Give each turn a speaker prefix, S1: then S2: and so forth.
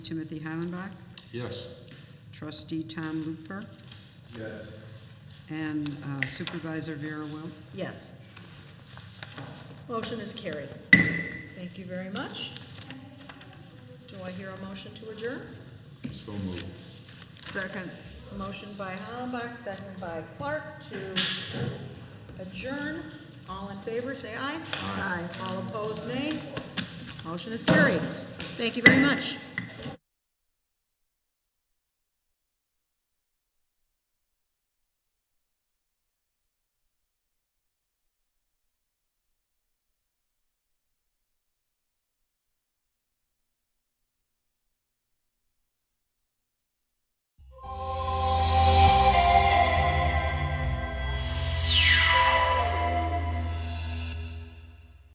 S1: Timothy Heilenbach,
S2: Yes.
S1: trustee Tom Lutfer,
S2: Yes.
S1: and uh, supervisor Vera Wilt.
S3: Yes. Motion is carried. Thank you very much. Do I hear a motion to adjourn?
S2: So moved.
S1: Second.
S3: Motion by Hollenbach, second by Clark to adjourn. All in favor, say aye. Aye. All opposed, nay. Motion is carried. Thank you very much.